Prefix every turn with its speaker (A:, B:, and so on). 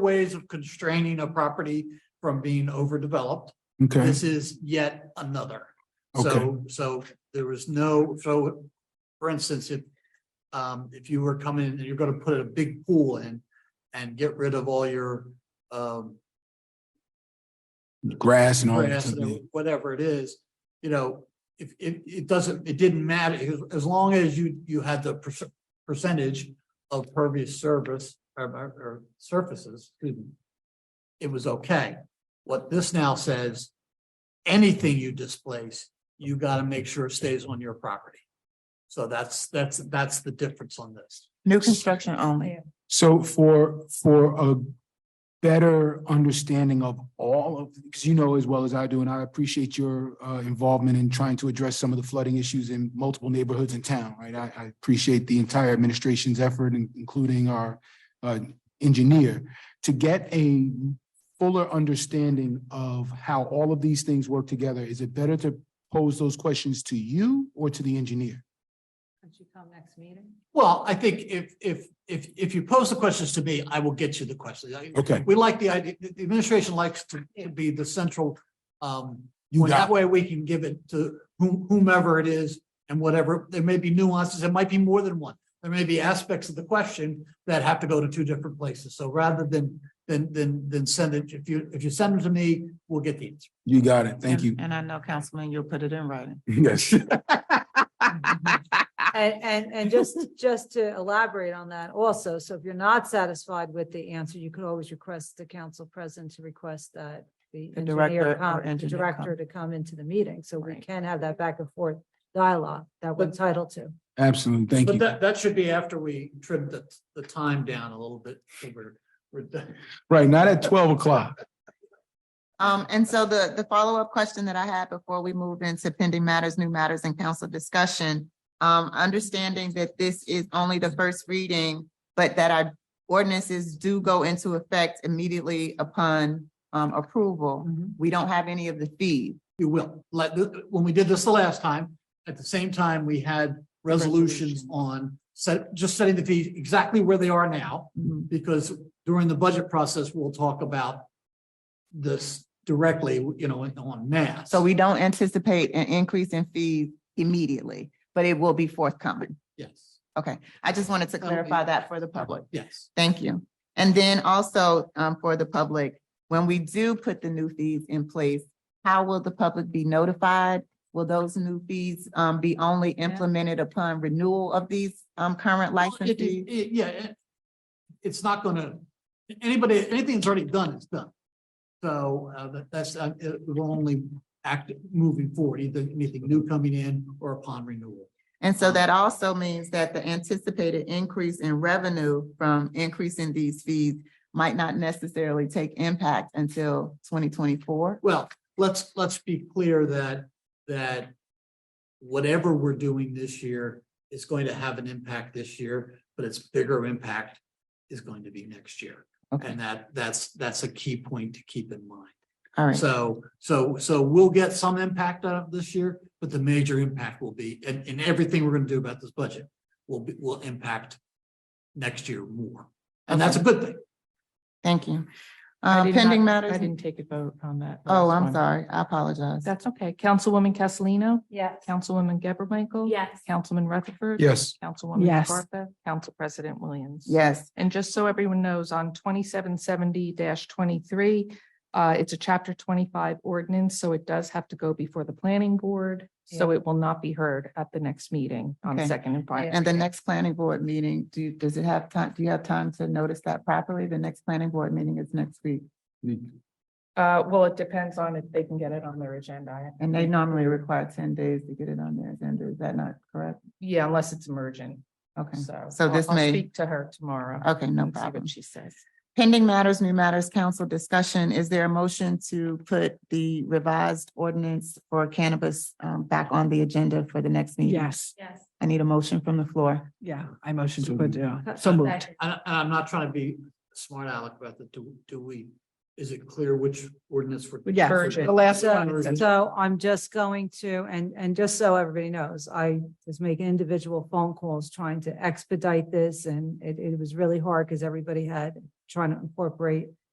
A: ways of constraining a property from being overdeveloped.
B: Okay,
A: This is yet another.
B: okay,
A: So, so there was no, so, for instance, if. Um, if you were coming and you're gonna put a big pool in and get rid of all your, um.
B: grass and all that.
A: grass
B: stuff, yeah.
A: and Whatever it is, you know, if, it, it doesn't, it didn't matter, as, as long as you, you had the perc- percentage of pervious service or, or- or surfaces, excuse me, It was okay. What this now says, anything you displace, you gotta make sure stays on your property. So that's, that's, that's the difference on this.
C: New construction only.
B: So for, for a better understanding of all of, because you know as well as I do, and I appreciate your uh, involvement in trying to address some of the flooding issues in multiple neighborhoods in town, right? I, I appreciate the entire administration's effort, in- including our uh, engineer, to get a fuller understanding of how all of these things work together. Is it better to pose those questions to you or to the engineer?
D: Could you come next meeting?
A: Well, I think if, if, if, if you pose the questions to me, I will get you the questions. I-
B: Okay.
A: we like the idea, the the administration likes to to be the central, um,
B: You
A: when
B: got,
A: that way we can give it to whom- whomever it is and whatever, there may be nuances, there might be more than one. There may be aspects of the question that have to go to two different places. So rather than, than, than, than send it, if you, if you send them to me, we'll get the answer.
B: it. you got it. Thank you.
C: And I know, Councilman, you'll put it in writing.
B: Yes.
C: Ah.
D: And, and, and just, just to elaborate on that also, so if you're not satisfied with the answer, you could always request the council president to request that the
C: The director
D: engineer
C: or
D: come, the
C: engineer come.
D: director to come into the meeting, so we
C: Right.
D: can have that back and forth dialogue that we're
A: But-
D: entitled to.
B: Absolutely. Thank you.
A: But that, that should be after we trim the, the time down a little bit. so we're- we're done.
B: Right, not at twelve o'clock.
E: Um, and so the, the follow-up question that I had before we moved into pending matters, new matters and council discussion. Um, understanding that this is only the first reading, but that our ordinances do go into effect immediately upon um approval.
C: Mm-hmm.
E: We don't have any of the fees.
A: You will. Like, th- when we did this the last time, at the same time, we had resolutions
C: Resolution.
A: on set, just setting the fees exactly where they are now,
C: Mm-hmm.
A: because during the budget process, we'll talk about this directly, you know, on mass.
E: So we don't anticipate an increase in fees immediately, but it will be forthcoming.
A: Yes,
E: I just wanted to
A: That'll be-
E: clarify that for the public.
A: yes.
E: Thank you. And then also um, for the public, when we do put the new fees in place, how will the public be notified? Will those new fees um, be only implemented upon renewal of these um, current
A: Well, it-
E: license
A: it-
E: fees?
A: it- Yeah, it- it's not gonna, anybody, anything that's already done is done. So uh, that- that's, uh, it will only act moving forward, either anything new coming in or upon renewal.
E: And so that also means that the anticipated increase in revenue from increasing these fees might not necessarily take impact until twenty twenty-four.
A: Well, let's, let's be clear that, that whatever we're doing this year is going to have an impact this year, but its bigger impact is going to be next year.
E: Okay.
A: And that, that's, that's a key point to keep in mind.
E: All right,
A: So, so, so we'll get some impact out of this year, but the major impact will be, and, and everything we're gonna do about this budget will be, will impact next year more. And that's a good thing.
E: thank you.
C: I
E: Um,
C: did not-
E: pending
C: I
E: matters.
C: didn't take a vote on that.
E: Oh,
C: last
E: I'm
C: one.
E: sorry. I apologize.
C: That's okay. Councilwoman Castellino,
D: Yes.
C: Councilwoman Gabor Michael.
D: Yes.
C: Councilman Rutherford.
B: Yes.
C: Councilwoman
F: Yes.
C: Scarpa, Council President Williams.
E: Yes.
C: And just so everyone knows, on twenty-seven seventy twenty-three, uh, it's a chapter twenty-five ordinance, so it does have to go before the planning board. So it will not be heard at the next meeting on
E: Okay.
C: second and final.
E: And the next planning board meeting, do, you- does it have time, do you have time to notice that properly? The next planning board meeting is next week.
C: Uh, well, it depends on if they can get it on their agenda.
E: And they normally require ten days to get it on their agenda. Is that not correct?
C: Yeah, unless it's emergent,
E: Okay.
C: so.
E: So
C: I'll-
E: this
C: I'll
E: may-
C: Speak to her tomorrow.
E: Okay, no
C: and see
E: problem.
C: What she says.
E: Pending matters, new matters, council discussion. Is there a motion to put the revised ordinance for cannabis um, back on the agenda for the next meeting?
F: Yes,
D: Yes.
E: I need a motion from the floor.
F: yeah, I motion
B: So
F: to put, uh, so
A: Okay.
F: moved.
A: And, I- and I'm not trying to be smart aleck about the, do, do we, is it clear which ordinance we're?
F: Yeah,
C: Virgin.
F: the last one.
A: Virgin.
D: So I'm just going to, and, and just so everybody knows, I was making individual phone calls trying to expedite this and it, it was really hard because everybody had trying to incorporate